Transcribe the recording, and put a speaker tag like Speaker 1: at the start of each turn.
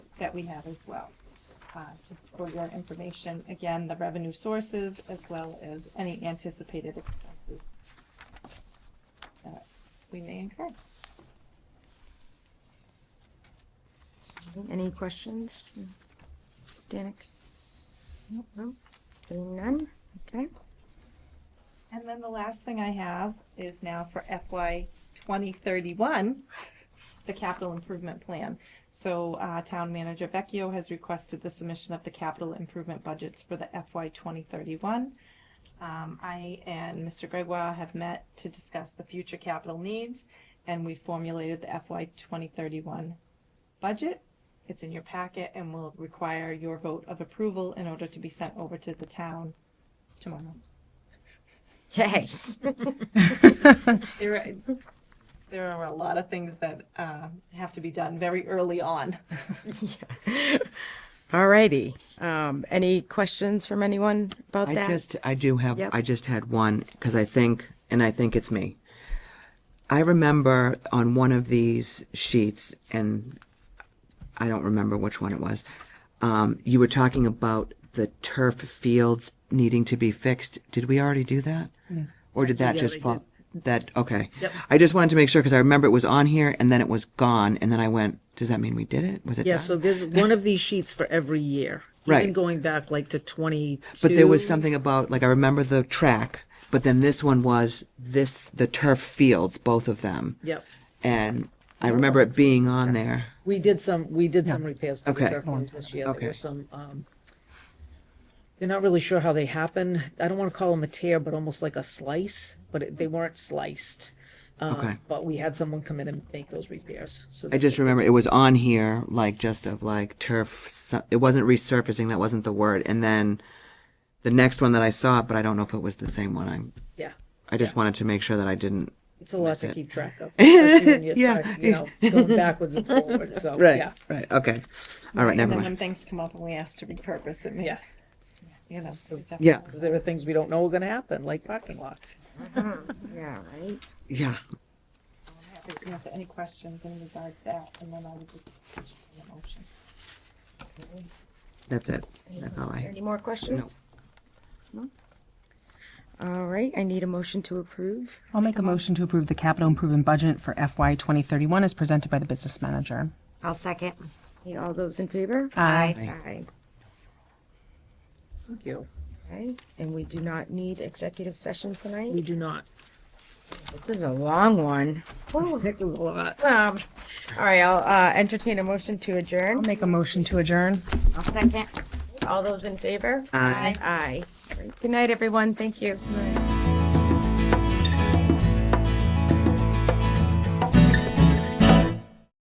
Speaker 1: that we have as well. Uh, Just for your information, again, the revenue sources as well as any anticipated expenses that we may incur.
Speaker 2: Any questions? Mrs. Danik?
Speaker 1: Nope.
Speaker 2: No? Seeing none? Okay.
Speaker 1: And then the last thing I have is now for FY 2031, the capital improvement plan. So uh, Town Manager Vecchio has requested the submission of the capital improvement budgets for the FY 2031. Um, I and Mr. Gregoire have met to discuss the future capital needs, and we formulated the FY 2031 budget. It's in your packet and will require your vote of approval in order to be sent over to the town tomorrow.
Speaker 2: Yay.
Speaker 1: There, are- there are a lot of things that uh, have to be done very early on.
Speaker 2: Alrighty. Um, any questions from anyone about
Speaker 3: I
Speaker 2: that?
Speaker 3: just, I do have,
Speaker 2: Yep.
Speaker 3: I just had one because I think, and I think it's me. I remember on one of these sheets, and I don't remember which one it was. Um, you were talking about the turf fields needing to be fixed. Did we already do that? Or did that just fall? That okay. I just wanted to make sure because I remember it was on here and then it was gone, and then I went, "Does that mean we did it? Was it?"
Speaker 4: Yeah,
Speaker 3: done?"
Speaker 4: so there's one of these sheets for every year. Even
Speaker 3: Right.
Speaker 4: going back like to twenty.
Speaker 3: But there was something about like I remember the track, but then this one was this the turf fields, both of them.
Speaker 4: Yep.
Speaker 3: And I remember it being on there.
Speaker 4: We did some, we did some repairs to the
Speaker 3: Okay.
Speaker 4: turf ones this year. There
Speaker 3: Okay.
Speaker 4: were some, um, they're not really sure how they happen. I don't want to call them a tear, but almost like a slice, but it- they weren't sliced. Um,
Speaker 3: Okay.
Speaker 4: But we had someone come in and make those repairs. So
Speaker 3: I just remember it was on here, like just of like turf. so- It wasn't resurfacing. That wasn't the word. And then the next one that I saw, but I don't know if it was the same one. I
Speaker 4: Yeah.
Speaker 3: I just wanted to make sure that I didn't.
Speaker 4: It's a lot to keep track of. especially when you're tired, You know, going backwards and forwards. So, yeah.
Speaker 3: Right. Okay. All right. Never
Speaker 1: And then
Speaker 3: mind.
Speaker 1: when things come up and we ask to repurpose, it
Speaker 4: Yeah.
Speaker 1: makes, you know. it's definitely-
Speaker 3: Yeah.
Speaker 4: Because there are things we don't know are going to happen, like parking lots.
Speaker 2: Yeah, right?
Speaker 3: Yeah.
Speaker 1: I'm happy to Answer any questions in regard to that, and then I would just put you in the motion.
Speaker 3: That's it. That's all I.
Speaker 2: Any more questions? No? All right, I need a motion to approve.
Speaker 5: I'll make a motion to approve the capital improvement budget for FY 2031 as presented by the business manager.
Speaker 6: I'll second.
Speaker 2: Need all those in favor?
Speaker 5: Aye.
Speaker 2: Aye.
Speaker 4: Thank you.
Speaker 2: Okay, and we do not need executive session tonight?
Speaker 4: We do not.
Speaker 2: This is a long one.
Speaker 4: Oh, heck, there's a lot.
Speaker 2: Um, all right, I'll, uh, entertain a motion to adjourn.
Speaker 5: Make a motion to adjourn.
Speaker 6: I'll second.
Speaker 2: All those in favor?
Speaker 3: Aye.
Speaker 2: Aye. All right, Good night, everyone. Thank you.